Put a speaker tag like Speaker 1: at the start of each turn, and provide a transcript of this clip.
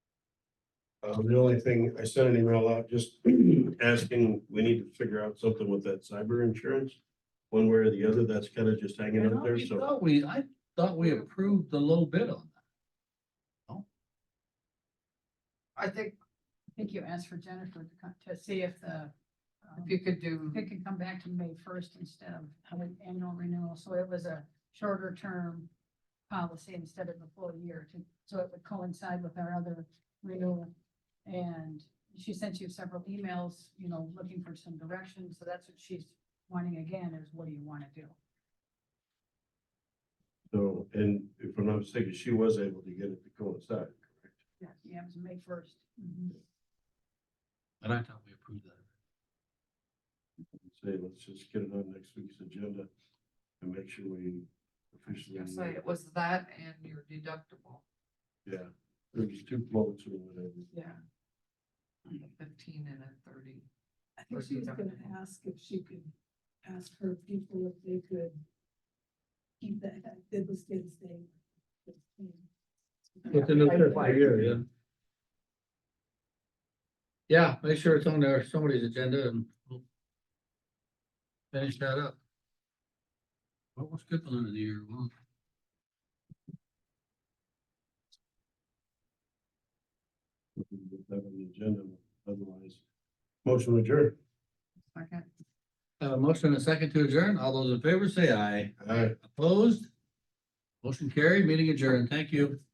Speaker 1: Um, the only thing, I sent an email out just asking, we need to figure out something with that cyber insurance. One way or the other, that's kind of just hanging
Speaker 2: I
Speaker 1: up there, so.
Speaker 2: thought we, I thought we approved the low bid on
Speaker 3: I think,
Speaker 4: I think you asked for Jennifer to come, to see if the, um,
Speaker 3: if you could do,
Speaker 4: if it could come back to May first instead of having annual renewal, so it was a shorter term policy instead of the full year to, so it would coincide with our other renewal. And she sent you several emails, you know, looking for some direction, so that's what she's wanting again, is what do you wanna do?
Speaker 1: So, and if I'm not mistaken, she was able to get it to coincide.
Speaker 4: Yeah, it was May first.
Speaker 3: Mm-hmm.
Speaker 2: that, and I thought we approved that.
Speaker 1: Say, let's just get it on next week's agenda and make sure we officially.
Speaker 3: you say it was that and your deductible,
Speaker 1: Yeah, there's two floats or whatever.
Speaker 4: Yeah.
Speaker 3: a fifteen and a thirty.
Speaker 5: I think she was gonna ask if she could ask her people if they could keep that, that bid was good thing.
Speaker 2: Within the five year, yeah. Yeah, make sure it's on there, somebody's agenda and we'll finish that up. What was good for the year? Well,
Speaker 1: We can get that on the agenda, otherwise. Motion adjourned.
Speaker 3: Second.
Speaker 2: Have a motion and a second to adjourn. All those in favor say aye.
Speaker 1: Aye.
Speaker 2: Opposed? Motion carried, meeting adjourned. Thank you.